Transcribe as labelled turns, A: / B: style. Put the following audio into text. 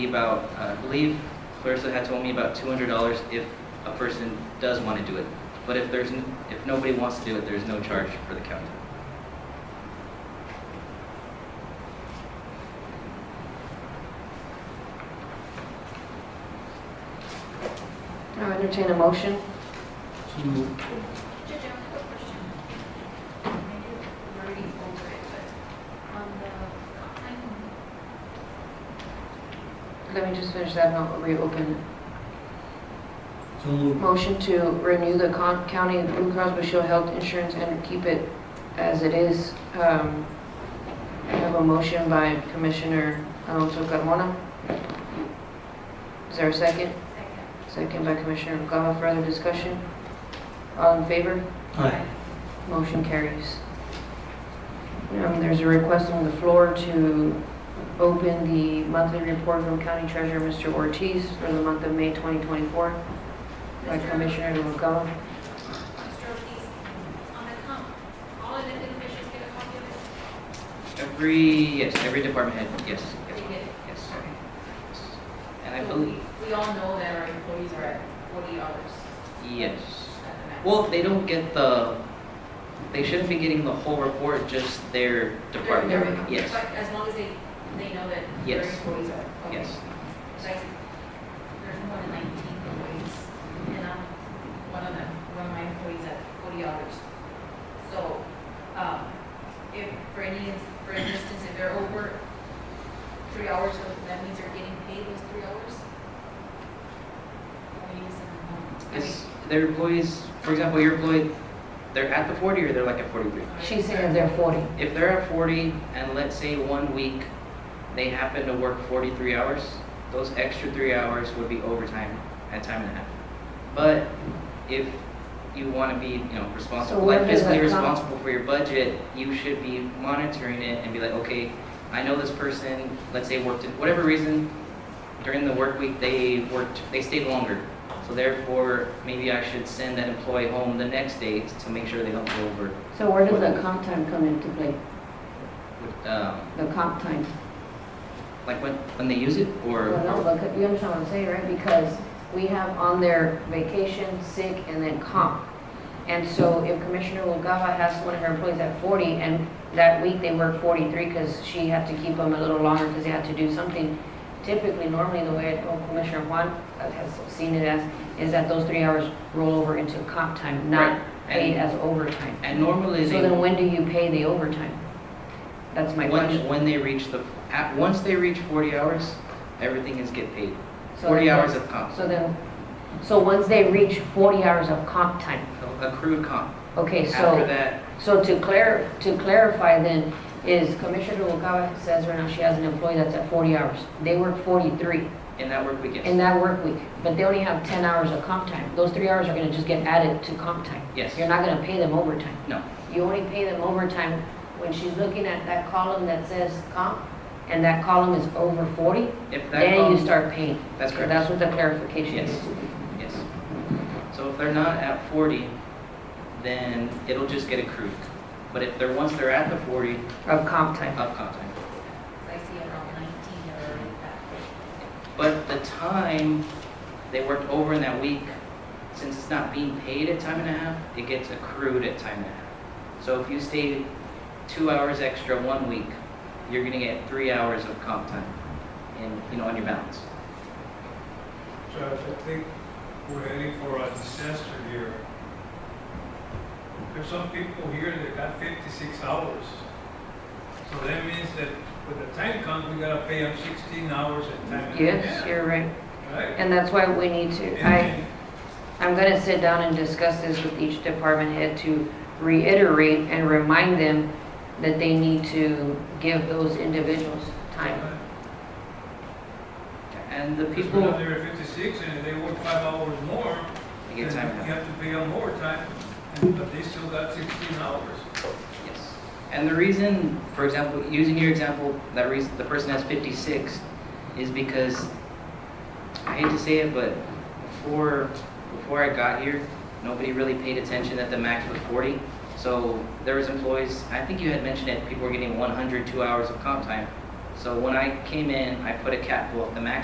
A: about, uh, I believe Clarissa had told me about two hundred dollars if a person does want to do it. But if there's, n- if nobody wants to do it, there's no charge for the county.
B: I'll entertain a motion.
C: Judge, I have a question. Maybe we're already over it, but on the hotline,
B: Let me just finish that and I'll reopen.
D: So moved.
B: Motion to renew the con- county Blue Cross Blue Shield health insurance and keep it as it is. Um, I have a motion by Commissioner Alonso Carmona. Is there a second?
C: second.
B: Second by Commissioner Noguera. Further discussion? All in favor?
D: Aye.
B: Motion carries. Um, There's a request on the floor to open the monthly report from County Treasurer, Mr. Ortiz, for the month of May 2024 by
C: Mr.
B: Commissioner Noguera.
C: Mr. Ortiz, on the comp, all elected officials get a copy of this?
A: Every, yes, every department head, yes, yes,
C: They get it.
A: yes. yes. And I believe,
C: We all know that our employees are at forty hours
A: yes.
C: at the max.
A: Well, they don't get the, they shouldn't be getting the whole report, just their
C: They're-
A: department,
C: they're-
A: yes,
C: But as long as they, they know that their
A: Yes.
C: employees are. okay.
A: yes.
C: Like, there's more than nineteen employees, and I'm one of them, one of my employees at forty hours. So, um, if, for any, for instance, if they're over three hours, so that means they're getting paid those three hours? Or you send them home? I mean,
A: It's, their employees, for example, your employee, they're at the forty or they're like at forty-three?
B: She's saying they're 40.
A: If they're at 40 and let's say one week they happen to work 43 hours, those extra three hours would be overtime at time and a half. But if you want to be, you know, responsible,
B: where
A: like
B: does
A: fiscally
B: that come?
A: responsible for your budget, you should be monitoring it and be like, okay, I know this person, let's say worked, whatever reason, during the work week, they worked, they stayed longer. So therefore, maybe I should send that employee home the next day to make sure they don't go over
E: So where does the comp time come into play?
A: with, um,
E: The comp time?
A: Like when, when they use it
B: Well,
A: or?
B: no, but you understand what I'm saying, right? Because we have on there vacation, sick, and then comp. And so if Commissioner Noguera has one of her employees at 40, and that week they work 43 because she had to keep them a little longer because they had to do something, typically, normally, the way oh, Commissioner Juan has seen it as, is that those three hours roll over into comp time,
A: Right.
B: not
A: And-
B: paid as overtime.
A: And normally
B: So
A: they,
B: then when do you pay the overtime? That's my question.
A: when, when they reach the, at, once they reach forty hours, everything is get paid.
B: So
A: Forty
B: then-
A: hours of comp,
B: So then, so once they reach 40 hours of comp time,
A: accrued comp.
B: okay,
A: After
B: so,
A: that,
B: so to clar, to clarify then, is Commissioner Noguera says right now she has an employee that's at 40 hours. They work 43
A: in that work
B: in
A: weekend,
B: that work week, but they only have 10 hours of comp time. Those three hours are gonna just get added to comp time.
A: Yes.
B: You're not gonna pay them overtime.
A: no,
B: You only pay them overtime when she's looking at that column that says comp, and that column is over 40,
A: if that
B: then you
A: comes,
B: start paying.
A: that's
B: So
A: correct.
B: That's what the clarification
A: yes,
B: is.
A: yes. So if they're not at forty, then it'll just get accrued. But if they're, once they're at the forty,
B: Of comp time.
A: up comp time.
C: I see around nineteen or already back.
A: But the time they worked over in that week, since it's not being paid at time and a half, it gets accrued at time and a half. So if you stay two hours extra one week, you're gonna get three hours of comp time in, you know, on your balance.
F: Judge, I think we're heading for a disaster here. There's some people here that got fifty-six hours. So that means that when the time comes, we gotta pay them sixteen hours and time. and a
B: Yes,
F: half,
B: you're right.
F: Right?
B: And that's why we need to, I,
F: And-
B: I'm gonna sit down and discuss this with each department head to reiterate and remind them that they need to give those individuals
F: uh,
B: time.
A: And the
F: Because when
A: people,
F: they're fifty-six and they work five hours more,
A: they get
F: then you
A: time and a half.
F: have to pay them more time, and- but they still got sixteen hours.
A: Yes. And the reason, for example, using your example, that reason, the person has 56 is because, I hate to say it, but before, before I got here, nobody really paid attention that the max was 40. So there was employees, I think you had mentioned it, people were getting 102 hours of comp time. So when I came in, I put a cap, well, the max